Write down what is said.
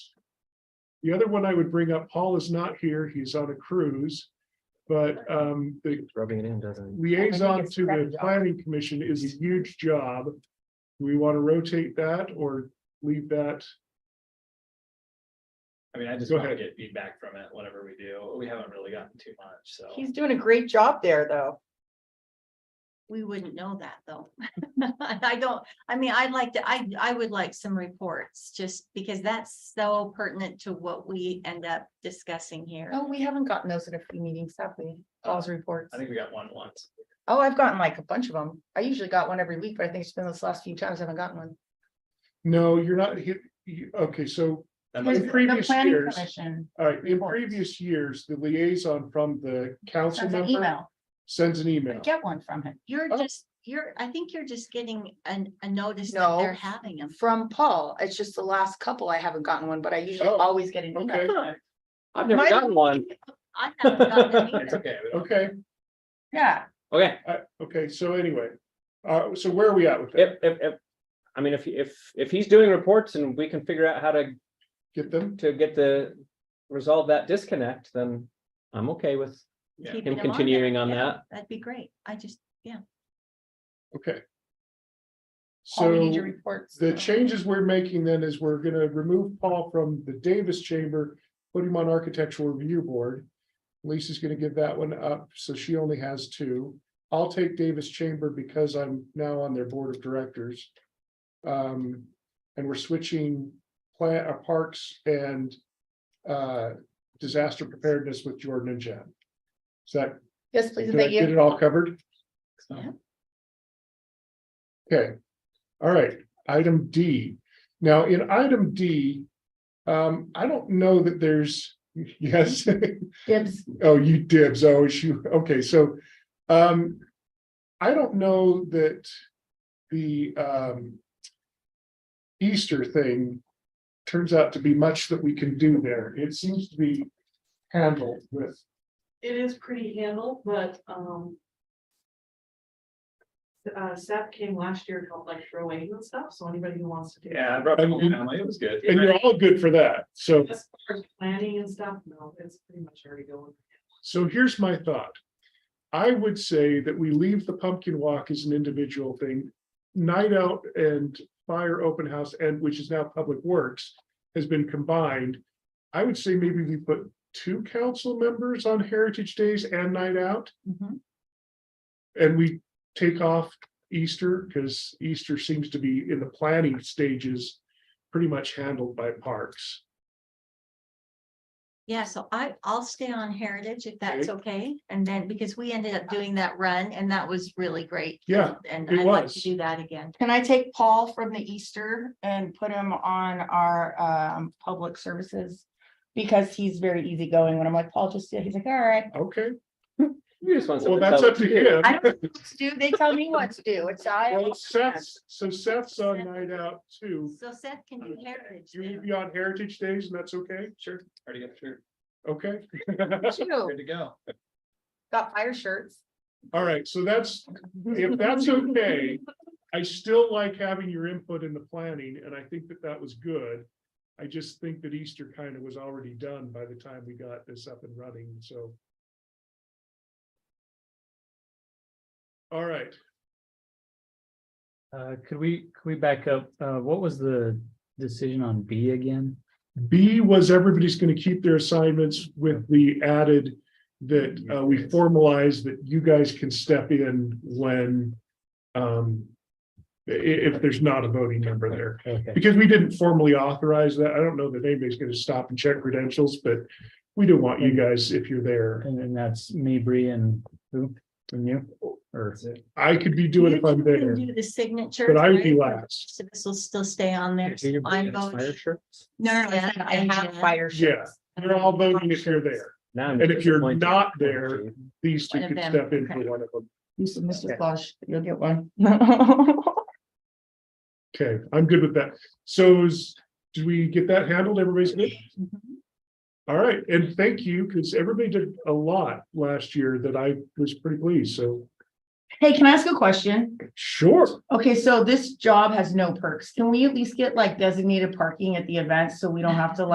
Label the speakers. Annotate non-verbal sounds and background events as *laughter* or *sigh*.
Speaker 1: The other one I would bring up, Paul is not here, he's on a cruise. But um, the
Speaker 2: Rubbing it in doesn't.
Speaker 1: liaison
Speaker 3: it's
Speaker 1: to the
Speaker 3: Brett.
Speaker 1: planning commission is a huge job. Do we want to rotate that or leave that?
Speaker 4: I mean, I just
Speaker 1: Go
Speaker 4: want to
Speaker 1: ahead.
Speaker 4: get feedback from it, whatever we do. We haven't really gotten too much, so.
Speaker 3: He's doing a great job there, though.
Speaker 5: We wouldn't know that, though. *laughs* I don't, I mean, I'd like to, I, I would like some reports, just because that's so pertinent to what we end up discussing here.
Speaker 3: Oh, we haven't gotten those at a few meetings, have we?
Speaker 1: Uh,
Speaker 3: Paul's reports.
Speaker 4: I think we got one once.
Speaker 3: Oh, I've gotten like a bunch of them. I usually got one every week, but I think it's been those last few times I haven't gotten one.
Speaker 1: No, you're not, he- you- okay, so,
Speaker 4: That
Speaker 1: Here's
Speaker 4: must
Speaker 3: *laughs*
Speaker 1: the
Speaker 4: be-
Speaker 1: previous
Speaker 3: planning
Speaker 1: years,
Speaker 3: commission
Speaker 1: all right, in
Speaker 3: Reports.
Speaker 1: previous years, the liaison from the council
Speaker 3: sends an
Speaker 1: member
Speaker 3: email.
Speaker 1: sends an
Speaker 3: I
Speaker 1: email.
Speaker 3: get one from him,
Speaker 5: You're
Speaker 1: Oh.
Speaker 5: just, you're, I think you're just getting an, a notice that
Speaker 3: No.
Speaker 5: they're having them.
Speaker 3: from Paul. It's just the last couple I haven't gotten one, but I usually
Speaker 1: Oh,
Speaker 3: always get an email.
Speaker 1: Okay,
Speaker 2: I've never
Speaker 3: Mine-
Speaker 2: gotten one.
Speaker 5: I haven't
Speaker 3: *laughs*
Speaker 5: gotten it
Speaker 4: *laughs* It's
Speaker 5: either.
Speaker 4: okay. we don't-
Speaker 1: okay,
Speaker 3: Yeah,
Speaker 2: Okay,
Speaker 1: I- okay, so anyway, uh, so where are we at with that?
Speaker 2: if, if, if, I mean, if, if, if he's doing reports and we can figure out how to,
Speaker 1: Get them?
Speaker 2: to get the, resolve that disconnect, then I'm okay with
Speaker 4: Yeah.
Speaker 5: Keeping
Speaker 2: him
Speaker 5: them on there,
Speaker 2: continuing on
Speaker 5: yeah,
Speaker 2: that.
Speaker 5: That'd be great. I just,
Speaker 1: Okay.
Speaker 3: Paul, we need your
Speaker 1: So
Speaker 3: reports.
Speaker 1: the changes we're making then is we're gonna remove Paul from the Davis Chamber, put him on Architectural Review Board. Lisa's gonna give that one up, so she only has two. I'll take Davis Chamber because I'm now on their Board of Directors. Um, and we're switching plant, uh, parks and uh, disaster preparedness with Jordan and Jen. Is that,
Speaker 3: Yes, please,
Speaker 1: did
Speaker 3: and
Speaker 1: I
Speaker 3: thank
Speaker 1: get
Speaker 3: you.
Speaker 1: it all covered?
Speaker 4: So-
Speaker 1: Okay, all right, item D. Now, in item D, um, I don't know that there's, *laughs* yes,
Speaker 3: Dibs.
Speaker 1: oh, you dibs, oh, shoot, okay, so, um, I don't know that the, um, Easter thing turns out to be much that we can do there. It seems to be handled with,
Speaker 6: It is pretty handled, but, um. Uh, Seth came last year, and helped like throw away and stuff, so anybody who wants to do.
Speaker 4: Yeah, I brought it
Speaker 1: And you-
Speaker 4: home. It was good.
Speaker 1: and you're all good for that, so.
Speaker 6: As far as planning and stuff, no, it's pretty much already going.
Speaker 1: So here's my thought. I would say that we leave the pumpkin walk as an individual thing. Night out and fire open house and which is now public works has been combined. I would say maybe we put two council members on heritage days and night out
Speaker 5: mhm.
Speaker 1: and we take off Easter because Easter seems to be in the planning stages pretty much handled by parks.
Speaker 5: yeah, so I, I'll stay on Heritage if that's
Speaker 1: Okay.
Speaker 5: okay. And then, because we ended up doing that run and that was really great.
Speaker 1: Yeah,
Speaker 5: And
Speaker 1: it
Speaker 5: I'd like to
Speaker 1: was.
Speaker 5: do that again.
Speaker 3: Can I take Paul from the Easter and put him on our um public services? Because he's very easygoing. When I'm like, Paul, just, do it," he's like, all right.
Speaker 1: okay.
Speaker 2: You just want
Speaker 1: Well,
Speaker 2: something.
Speaker 1: that's up to him.
Speaker 3: I don't know what to do. They tell me what to do. It's I.
Speaker 1: Well, Seth's, so Seth's on
Speaker 5: Seth.
Speaker 1: night out too.
Speaker 5: So Seth can do heritage.
Speaker 1: You need to
Speaker 5: then.
Speaker 1: be on Heritage Days and that's okay,
Speaker 4: Sure. Already got through. *laughs*
Speaker 1: okay?
Speaker 3: Shoot,
Speaker 4: Good to go.
Speaker 3: Got fire shirts.
Speaker 1: All right, so that's, if that's okay, I still like having your input in the planning and I think that that was good. I just think that Easter kind of was already done by the time we got this up and running, so. All right,
Speaker 7: Uh, could we, could we back up? Uh, what was the decision on B again?
Speaker 1: B was everybody's gonna keep their assignments with the added that uh, we formalize that you guys can step in when um i- if there's not a voting member there,
Speaker 7: Okay,
Speaker 1: because we didn't formally authorize that. I don't know that anybody's gonna stop and check credentials, but we do want you guys if you're there.
Speaker 7: and then that's me, Bree and who, and you, or?
Speaker 1: I could be doing it if
Speaker 5: You
Speaker 1: I'm
Speaker 5: can
Speaker 1: there,
Speaker 5: Do the signature.
Speaker 1: but I would be last.
Speaker 5: So this will still stay on there.
Speaker 2: Do your
Speaker 5: I'm
Speaker 2: best fire
Speaker 5: voting.
Speaker 2: shirts.
Speaker 3: No, no, no,
Speaker 5: Yeah,
Speaker 3: I
Speaker 5: and
Speaker 3: have
Speaker 5: Jen.
Speaker 3: fire
Speaker 1: Yeah,
Speaker 3: shirts.
Speaker 1: you're all voting if you're there.
Speaker 2: Now I'm
Speaker 1: And if you're
Speaker 2: disappointed.
Speaker 1: not there- These two
Speaker 5: One of
Speaker 1: could
Speaker 5: them,
Speaker 1: step in for
Speaker 5: okay.
Speaker 1: one of them.
Speaker 3: Use of Mr. Flush, you'll get one.
Speaker 1: Okay, I'm good with that. So is, do we get that handled? Everybody's good? All right, and thank you, because everybody did a lot last year that I was pretty pleased, so
Speaker 3: *laughs* Hey, can I ask a question?
Speaker 1: sure.
Speaker 3: Okay, so this job has no perks. Can we at least get like designated parking at the event so we don't have to like